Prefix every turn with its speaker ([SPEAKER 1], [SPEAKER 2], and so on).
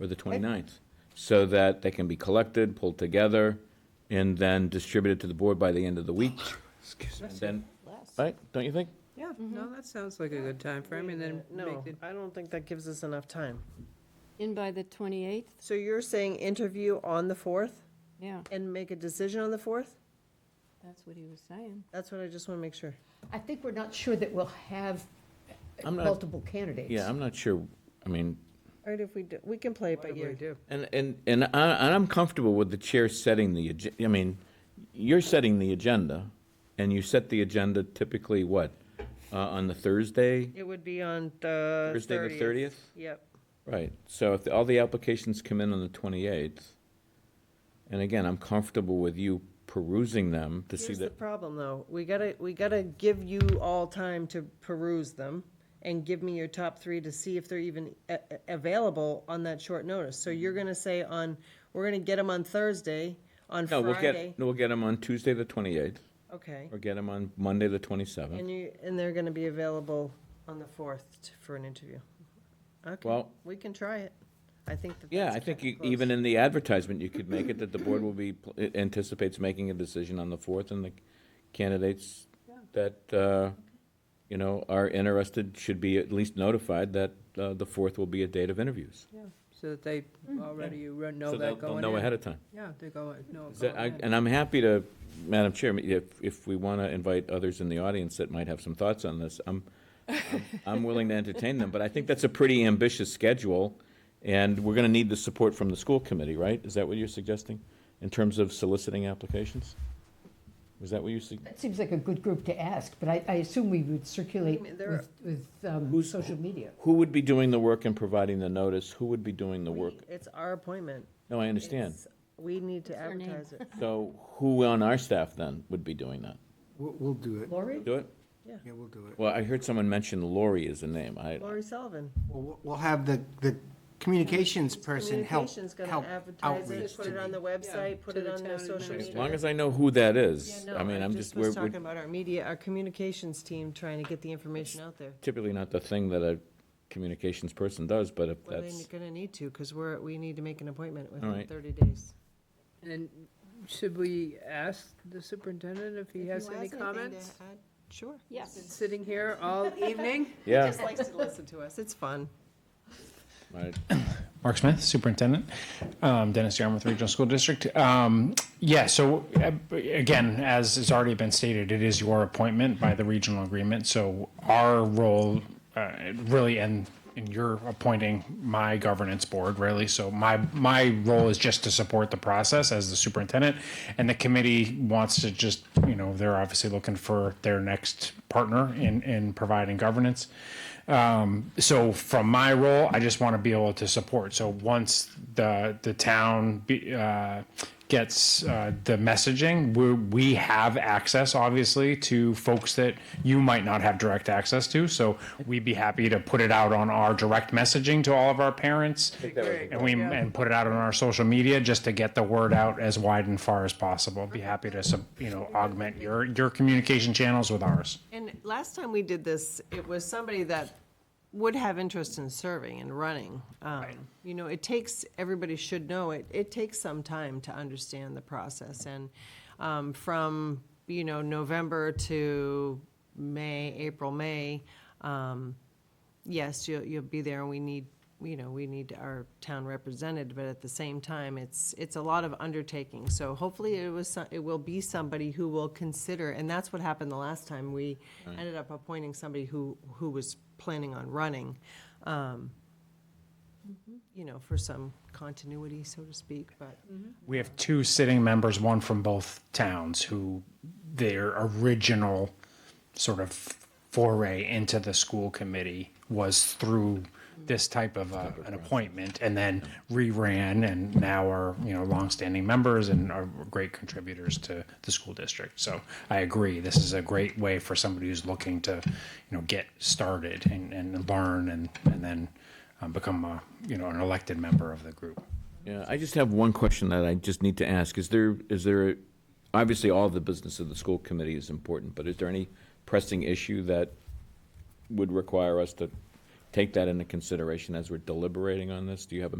[SPEAKER 1] or the 29th, so that they can be collected, pulled together, and then distributed to the board by the end of the week. Excuse me. Then, right, don't you think?
[SPEAKER 2] Yeah, no, that sounds like a good time frame. and then
[SPEAKER 3] No,
[SPEAKER 2] make it,
[SPEAKER 3] I don't think that gives us enough time.
[SPEAKER 4] In by the 28th,
[SPEAKER 3] So you're saying interview on the 4th
[SPEAKER 4] yeah,
[SPEAKER 3] and make a decision on the 4th?
[SPEAKER 4] that's what he was saying.
[SPEAKER 3] That's what I just want to make sure.
[SPEAKER 5] I think we're not sure that we'll have
[SPEAKER 1] I'm not-
[SPEAKER 5] multiple candidates.
[SPEAKER 1] Yeah, I'm not sure, I mean,
[SPEAKER 3] All right, if we do, we can play it by
[SPEAKER 2] what do we
[SPEAKER 3] ear.
[SPEAKER 2] do?
[SPEAKER 1] and, and, and I, and I'm comfortable with the chair setting the, agen- I mean, you're setting the agenda, and you set the agenda typically, what, uh, on the Thursday?
[SPEAKER 3] It would be on the 30th.
[SPEAKER 1] Thursday the 30th?
[SPEAKER 3] Yep.
[SPEAKER 1] Right, so if all the applications come in on the 28th, and again, I'm comfortable with you perusing them to see
[SPEAKER 3] Here's the
[SPEAKER 1] that,
[SPEAKER 3] problem, though. We gotta, we gotta give you all time to peruse them and give me your top three to see if they're even a- a- available on that short notice. So
[SPEAKER 1] Mm-hmm.
[SPEAKER 3] you're gonna say on, we're gonna get them on Thursday, on
[SPEAKER 1] no, we'll
[SPEAKER 3] Friday.
[SPEAKER 1] get, no, we'll get them on Tuesday, the 28th,
[SPEAKER 3] Okay.
[SPEAKER 1] or get them on Monday, the 27th.
[SPEAKER 3] And you, and they're gonna be available on the fourth for an interview. Okay,
[SPEAKER 1] Well-
[SPEAKER 3] we can try it. I think that.
[SPEAKER 1] Yeah,
[SPEAKER 3] that's
[SPEAKER 1] I think
[SPEAKER 3] kinda
[SPEAKER 1] you-
[SPEAKER 3] close.
[SPEAKER 1] even in the advertisement, you could make it that the board will be, anticipates making a decision on the 4th, and the candidates that, uh, you know, are interested should be at least notified that uh, the 4th will be a date of interviews.
[SPEAKER 2] So that they
[SPEAKER 3] Mm,
[SPEAKER 2] already, you run- know
[SPEAKER 1] So they'll-
[SPEAKER 2] that going in.
[SPEAKER 1] They'll know ahead of time.
[SPEAKER 2] Yeah, they go, know it
[SPEAKER 1] Is that-
[SPEAKER 2] going
[SPEAKER 1] I-
[SPEAKER 2] in.
[SPEAKER 1] And I'm happy to, Madam Chair, if, if we want to invite others in the audience that might have some thoughts on this, I'm, I'm- I'm willing to entertain them, but I think that's a pretty ambitious schedule, and we're going to need the support from the school committee, right? Is that what you're suggesting, in terms of soliciting applications? Was that what you sug,
[SPEAKER 5] That seems like a good group to ask, but I, I assume we would circulate
[SPEAKER 3] Wait a minute, there are-
[SPEAKER 5] with, with um, social media.
[SPEAKER 1] who would be doing the work and providing the notice? Who would be doing the work?
[SPEAKER 3] It's our appointment.
[SPEAKER 1] No, I understand.
[SPEAKER 3] It's- We need to
[SPEAKER 4] her name?
[SPEAKER 3] advertise it.
[SPEAKER 1] So who on our staff then would be doing that?
[SPEAKER 6] We'll, we'll do it.
[SPEAKER 5] Lori?
[SPEAKER 1] Do it?
[SPEAKER 6] Yeah, we'll do it.
[SPEAKER 1] Well, I heard someone mention Lori is the name. I,
[SPEAKER 3] Lori Sullivan.
[SPEAKER 6] We'll- We'll, we'll have the, the communications person help,
[SPEAKER 3] Communications gonna
[SPEAKER 6] help
[SPEAKER 3] advertise
[SPEAKER 6] outreach
[SPEAKER 3] it, put
[SPEAKER 6] to
[SPEAKER 3] it on the
[SPEAKER 6] the.
[SPEAKER 3] website, put
[SPEAKER 4] to
[SPEAKER 3] it
[SPEAKER 4] the
[SPEAKER 3] on their
[SPEAKER 4] town
[SPEAKER 3] social
[SPEAKER 1] as
[SPEAKER 3] media.
[SPEAKER 4] administrator.
[SPEAKER 1] long as I know who that is,
[SPEAKER 3] No,
[SPEAKER 1] I mean, I'm just, we're,
[SPEAKER 3] was
[SPEAKER 1] we're
[SPEAKER 3] talking about our media, our communications team trying to get the information out there.
[SPEAKER 1] typically not the thing that a communications person does, but if
[SPEAKER 3] Well, they're
[SPEAKER 1] that's,
[SPEAKER 3] gonna need to, because we're, we need to make an appointment within
[SPEAKER 1] right.
[SPEAKER 3] thirty days.
[SPEAKER 2] And should we ask the superintendent if he
[SPEAKER 3] If
[SPEAKER 2] has
[SPEAKER 3] you
[SPEAKER 2] any
[SPEAKER 3] has anything to
[SPEAKER 2] comments?
[SPEAKER 3] add, Sure.
[SPEAKER 4] Yes.
[SPEAKER 2] Been Sitting here all evening?
[SPEAKER 1] yeah.
[SPEAKER 3] Just likes to listen to us. It's fun.
[SPEAKER 1] right.
[SPEAKER 7] Mark Smith, Superintendent, um, Dennis Yarmouth Regional School District. Um, yeah, so uh, again, as has already been stated, it is your appointment by the regional agreement. So our role, uh, really, and and you're appointing my governance board, really. So my my role is just to support the process as the superintendent, and the committee wants to just you know they're obviously looking for their next partner in in providing governance. Um, so from my role, I just want to be able to support. So once the the town be, uh, gets uh, the messaging, we we have access, obviously, to folks that you might not have direct access to. So we'd be happy to put it out on our direct messaging to all of our parents, and we and put it out on our social media just to get the word out as wide and far as possible. Be happy to sup- you know augment your your communication channels with ours.
[SPEAKER 3] And last time we did this, it was somebody that would have interest in serving and running. Um, You know, it takes, everybody should know, it, it takes some time to understand the process. And um, from, you know, November to May, April, May, um, yes, you'll, you'll be there, and we need, you know, we need our town represented, but at the same time, it's, it's a lot of undertaking. So hopefully it was, so- it will be somebody who will consider, and that's what happened the last time. We ended up appointing somebody who, who was planning on running, um, you know, for some continuity, so to speak, but.
[SPEAKER 7] We have two sitting members, one from both towns, who their original sort of foray into the school committee was through this type of uh, an appointment and then reran and now are, you know, longstanding members and are great contributors to the school district. So I agree, this is a great way for somebody who's looking to, you know, get started and, and learn and, and then um, become a, you know, an elected member of the group.
[SPEAKER 1] Yeah, I just have one question that I just need to ask. Is there, is there, obviously, all the business of the school committee is important, but is there any pressing issue that would require us to take that into consideration as we're deliberating on this? Do you have a